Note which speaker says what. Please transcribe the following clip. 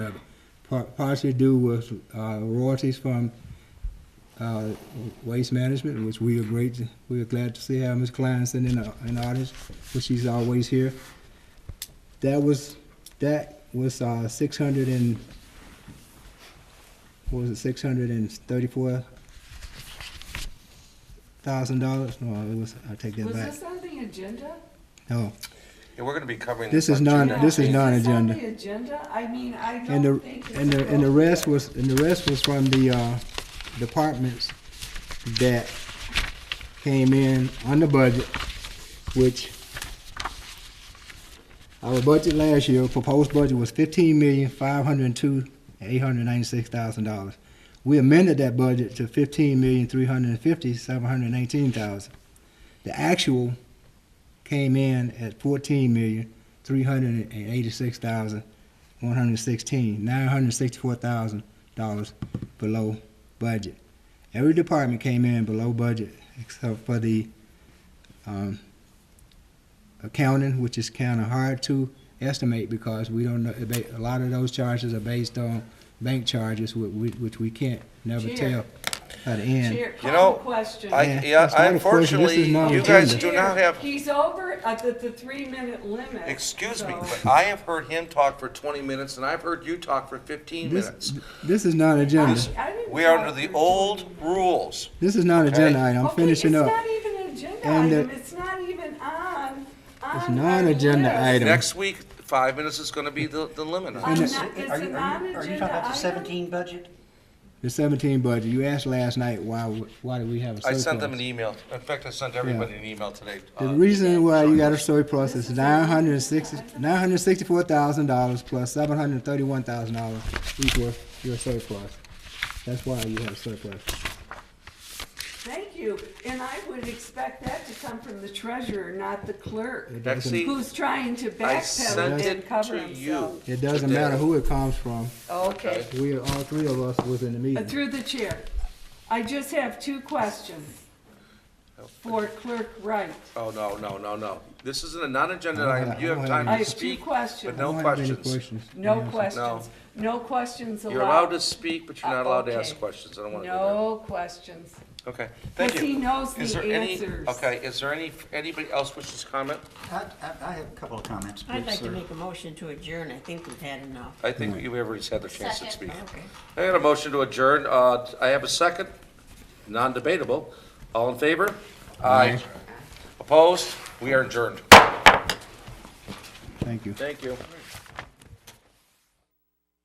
Speaker 1: par- partially due with uh, royalties from uh, Waste Management, which we are great, we are glad to see have Ms. Klein sending an an artist, which she's always here. That was, that was uh, 600 and, what was it, 634 thousand dollars? No, it was, I take that
Speaker 2: Was
Speaker 1: back.
Speaker 2: this on the agenda?
Speaker 1: No,
Speaker 3: And we're gonna be covering
Speaker 1: This
Speaker 3: this
Speaker 1: is
Speaker 3: on
Speaker 1: non-
Speaker 3: June
Speaker 1: this
Speaker 3: nineteenth.
Speaker 1: is
Speaker 2: this on
Speaker 1: non-agenda.
Speaker 2: the agenda? I mean, I
Speaker 1: and
Speaker 2: don't
Speaker 1: the,
Speaker 2: think it's.
Speaker 1: and the, and the rest was,
Speaker 2: appropriate.
Speaker 1: and the rest was from the, uh, departments that came in on the budget, which our budget last year, proposed budget was fifteen million, five hundred and two, eight hundred ninety-six thousand dollars. We amended that budget to fifteen million, three hundred and fifty, seven hundred nineteen thousand. The actual came in at fourteen million, three hundred and eighty-six thousand, one hundred sixteen, nine hundred sixty-four thousand dollars below budget. Every department came in below budget except for the um, accounting, which is kind of hard to estimate because we don't know, a lot of those charges are based on bank charges, whi- whi- which we can't never
Speaker 2: Chair.
Speaker 1: tell at the end.
Speaker 2: Chair,
Speaker 3: You
Speaker 2: call
Speaker 3: know,
Speaker 2: the question.
Speaker 3: I,
Speaker 1: Yeah,
Speaker 3: yeah,
Speaker 1: that's not a question. This is
Speaker 3: unfortunately, you guys
Speaker 1: non-agenda.
Speaker 3: do
Speaker 2: Chair,
Speaker 3: not have,
Speaker 2: He's over at the, the three-minute limit.
Speaker 3: excuse me,
Speaker 2: so-
Speaker 3: but I have heard him talk for twenty minutes and I've heard you talk for fifteen
Speaker 1: This-
Speaker 3: minutes.
Speaker 1: This is not agenda.
Speaker 2: I- I didn't
Speaker 3: We are
Speaker 2: talk
Speaker 3: under the
Speaker 2: for-
Speaker 3: old rules.
Speaker 1: This is not agenda item. I'm
Speaker 2: Okay,
Speaker 1: finishing up.
Speaker 2: It's not even an agenda
Speaker 1: And, uh,
Speaker 2: item. It's not even on, on.
Speaker 1: It's
Speaker 2: our
Speaker 1: not an agenda
Speaker 2: list.
Speaker 1: item.
Speaker 3: Next week, five minutes is gonna be the, the limit. on
Speaker 2: I'm
Speaker 3: it.
Speaker 1: And
Speaker 2: not,
Speaker 1: it's-
Speaker 2: it's
Speaker 4: Are you,
Speaker 2: an
Speaker 4: are you, are
Speaker 2: on-agenda
Speaker 4: you talking about the
Speaker 2: item.
Speaker 4: seventeen budget?
Speaker 1: The seventeen budget, you asked last night why, w- why do we have a
Speaker 3: I
Speaker 1: surplus?
Speaker 3: sent them an email. In fact, I sent everybody an email today.
Speaker 1: The
Speaker 3: uh,
Speaker 1: reason why you got a surplus is nine hundred and sixty, nine hundred and sixty-four thousand dollars plus seven hundred and thirty-one thousand dollars equals your surplus. That's why you have surplus.
Speaker 2: Thank you. And I would expect that to come from the treasurer, not the clerk,
Speaker 3: Betsy,
Speaker 2: who's trying to
Speaker 3: sent
Speaker 2: backpedal and
Speaker 3: it
Speaker 2: cover
Speaker 3: to you.
Speaker 2: himself.
Speaker 1: It doesn't matter who it comes from,
Speaker 2: Okay.
Speaker 1: we, all three of us was in the
Speaker 2: Uh,
Speaker 1: meeting.
Speaker 2: Through the chair, I just have two questions for Clerk Wright.
Speaker 3: Oh, no, no, no, no. This isn't a non-agenda
Speaker 1: I don't
Speaker 3: item. You
Speaker 1: have- I
Speaker 3: have
Speaker 1: don't have
Speaker 2: I
Speaker 3: time to
Speaker 2: have two
Speaker 3: speak.
Speaker 2: questions.
Speaker 3: no
Speaker 1: I don't have any
Speaker 3: questions.
Speaker 2: No
Speaker 1: Yes.
Speaker 2: questions. No questions allowed.
Speaker 3: You're allowed to speak, but you're
Speaker 2: Uh,
Speaker 3: not allowed to
Speaker 2: okay.
Speaker 3: ask questions. I don't want to do that.
Speaker 2: No questions.
Speaker 3: Okay, thank
Speaker 2: Because
Speaker 3: you.
Speaker 2: he knows
Speaker 3: Is
Speaker 2: the
Speaker 3: there any-
Speaker 2: answers.
Speaker 3: Okay, is there any, anybody else wishes to comment?
Speaker 4: I, I, I have a couple of comments, please,
Speaker 5: I'd like to
Speaker 4: sir.
Speaker 5: make a motion to adjourn. I think we've had enough.
Speaker 3: I think you everybody's had their chance to speak.
Speaker 5: Second. Okay.
Speaker 3: I got a motion to adjourn. Uh, I have a second, non-debatable. All in favor? Aye. Opposed? We are adjourned.
Speaker 1: Thank you.
Speaker 3: Thank you.